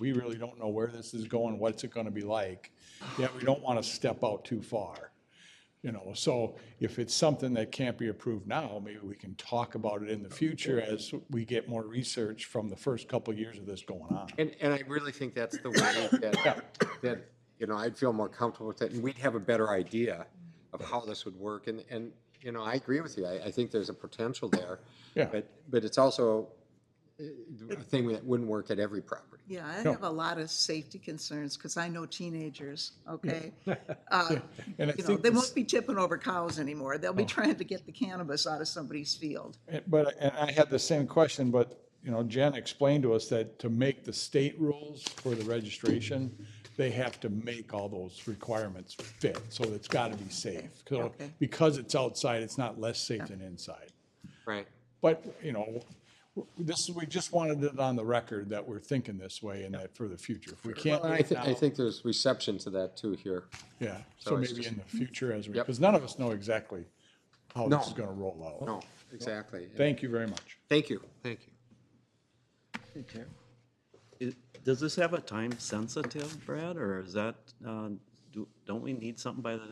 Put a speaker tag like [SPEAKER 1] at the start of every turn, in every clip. [SPEAKER 1] we really don't know where this is going, what's it gonna be like, yet we don't wanna step out too far. You know, so if it's something that can't be approved now, maybe we can talk about it in the future as we get more research from the first couple of years of this going on.
[SPEAKER 2] And, and I really think that's the way that, that, you know, I'd feel more comfortable with it, and we'd have a better idea of how this would work, and, and, you know, I agree with you, I, I think there's a potential there.
[SPEAKER 1] Yeah.
[SPEAKER 2] But, but it's also uh, a thing that wouldn't work at every property.
[SPEAKER 3] Yeah, I have a lot of safety concerns because I know teenagers, okay? Uh,
[SPEAKER 1] And I
[SPEAKER 3] You know,
[SPEAKER 1] think,
[SPEAKER 3] they
[SPEAKER 1] this-
[SPEAKER 3] won't be tipping over cows anymore. They'll be trying to get the cannabis out of somebody's field.
[SPEAKER 1] but, and I had the same question, but, you know, Jen explained to us that to make the state rules for the registration, they have to make all those requirements fit, so it's gotta be safe. So
[SPEAKER 3] Okay.
[SPEAKER 1] Because it's outside, it's not less safe than inside.
[SPEAKER 2] Right.
[SPEAKER 1] But, you know, w- this, we just wanted it on the record that we're thinking this way and that for the future. If we can't
[SPEAKER 2] Well,
[SPEAKER 1] do
[SPEAKER 2] I
[SPEAKER 1] it
[SPEAKER 2] think, I
[SPEAKER 1] now,
[SPEAKER 2] think there's reception to that too here.
[SPEAKER 1] yeah, so
[SPEAKER 2] it's
[SPEAKER 1] maybe
[SPEAKER 2] just- Hmm?
[SPEAKER 1] in the future as we,
[SPEAKER 2] Yep.
[SPEAKER 1] because none of us know exactly how
[SPEAKER 2] No.
[SPEAKER 1] this is gonna roll out.
[SPEAKER 2] No, Oh, exactly.
[SPEAKER 1] Thank you very much.
[SPEAKER 2] Thank you, thank you.
[SPEAKER 4] Is- Does this have a time sensitive, Brad, or is that, uh, do- don't we need something by the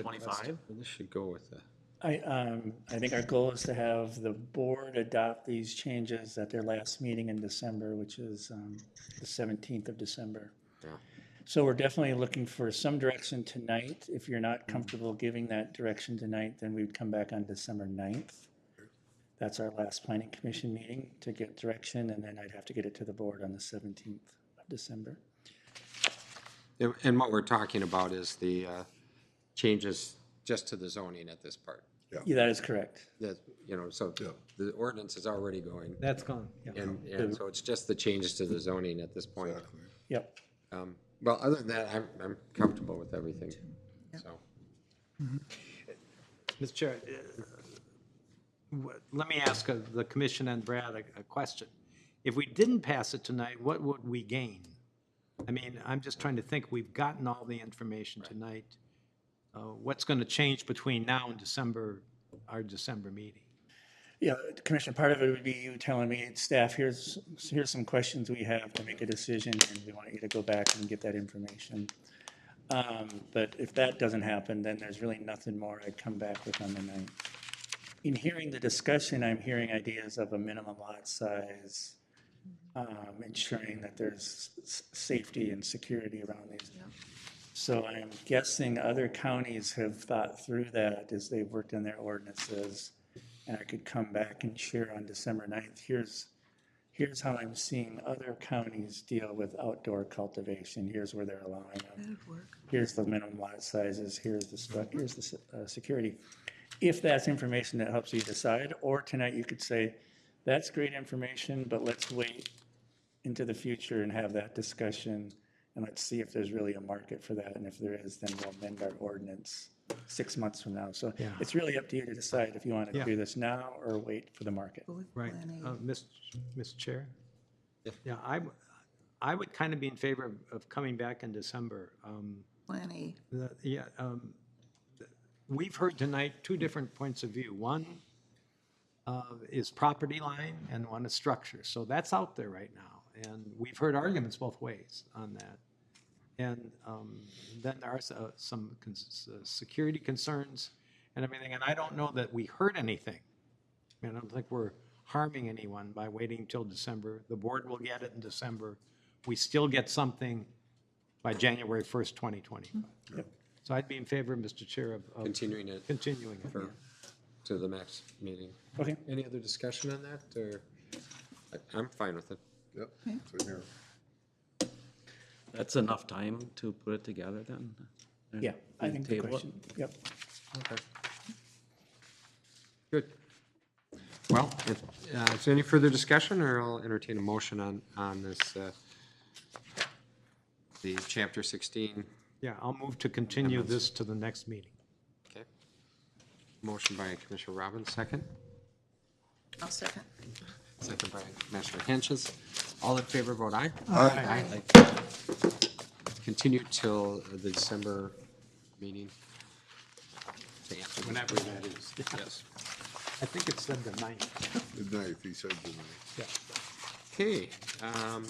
[SPEAKER 4] 25?
[SPEAKER 2] This should go with the,
[SPEAKER 5] I, um, I think our goal is to have the board adopt these changes at their last meeting in December, which is, um, the seventeenth of December.
[SPEAKER 2] Yeah.
[SPEAKER 5] So we're definitely looking for some direction tonight. If you're not comfortable giving that direction tonight, then we'd come back on December 9th. That's our last planning commission meeting to get direction, and then I'd have to get it to the board on the seventeenth of December.
[SPEAKER 2] and- and what we're talking about is the uh, changes just to the zoning at this part.
[SPEAKER 5] Yeah, that is correct.
[SPEAKER 2] That, you know, so the ordinance is already going.
[SPEAKER 6] That's gone, yeah.
[SPEAKER 2] And, and so it's just the changes to the zoning at this point.
[SPEAKER 5] Yep.
[SPEAKER 2] Um, Well, other than that, I'm, I'm comfortable with everything, so.
[SPEAKER 6] Mr. Chair, uh, wh- let me ask uh, the commission and Brad a, a question. If we didn't pass it tonight, what would we gain? I mean, I'm just trying to think, we've gotten all the information tonight. Uh, what's going to change between now and December, our December meeting?
[SPEAKER 5] Yeah, Commissioner, part of it would be you telling me, staff, here's, here's some questions we have to make a decision, and we want you to go back and get that information. Um, But if that doesn't happen, then there's really nothing more I'd come back with on the night. In hearing the discussion, I'm hearing ideas of a minimum lot size, um, ensuring that there's s- safety and security around these. So I'm guessing other counties have thought through that as they've worked on their ordinances. And I could come back and share on December 9th, here's, here's how I'm seeing other counties deal with outdoor cultivation. Here's where they're allowing them
[SPEAKER 3] That'd work.
[SPEAKER 5] here's the minimum lot sizes, here's the stuff, here's the se- uh, security. If that's information that helps you decide, or tonight you could say, that's great information, but let's wait into the future and have that discussion, and let's see if there's really a market for that, and if there is, then we'll amend our ordinance six months from now. So it's really up to you to decide if you want to
[SPEAKER 6] Yeah.
[SPEAKER 5] do this now or wait for the market.
[SPEAKER 3] Go with
[SPEAKER 6] Right,
[SPEAKER 3] Plan A.
[SPEAKER 6] uh, Ms. Mr. Chair? Yeah, I, w- I would kind of be in favor of, of coming back in December. Um,
[SPEAKER 3] Plan A.
[SPEAKER 6] The- Yeah, um, th- we've heard tonight two different points of view. One uh, is property line and one is structure. So that's out there right now. And we've heard arguments both ways on that. And um, then there are s- uh, some cons- uh, security concerns and everything. And I don't know that we hurt anything. I mean, I don't think we're harming anyone by waiting till December. The board will get it in December. We still get something by January 1st, 2025. So I'd be in favor, Mr. Chair, of- of
[SPEAKER 2] Continuing it
[SPEAKER 6] continuing it.
[SPEAKER 2] for, to the next meeting.
[SPEAKER 5] Okay.
[SPEAKER 2] Any other discussion on that, or? I- I'm fine with it.
[SPEAKER 7] Yep, it's in here.
[SPEAKER 4] That's enough time to put it together then?
[SPEAKER 5] Yeah, I think the
[SPEAKER 4] Table it.
[SPEAKER 5] question, yep.
[SPEAKER 2] Okay. Good. Well, if, uh, is there any further discussion, or I'll entertain a motion on, on this, uh, the chapter sixteen,
[SPEAKER 6] Yeah, I'll move to continue this to the next meeting.
[SPEAKER 2] okay? Motion by Commissioner Robbins, second?
[SPEAKER 3] I'll second.
[SPEAKER 2] Second by Commissioner Henches. All in favor, vote aye.
[SPEAKER 3] Aye.
[SPEAKER 2] Aye. Continue till the December meeting. To answer this.
[SPEAKER 6] Whenever that is.
[SPEAKER 2] Yes.
[SPEAKER 6] I think it said the ninth.
[SPEAKER 7] Good night, he said good night.
[SPEAKER 2] Okay, um,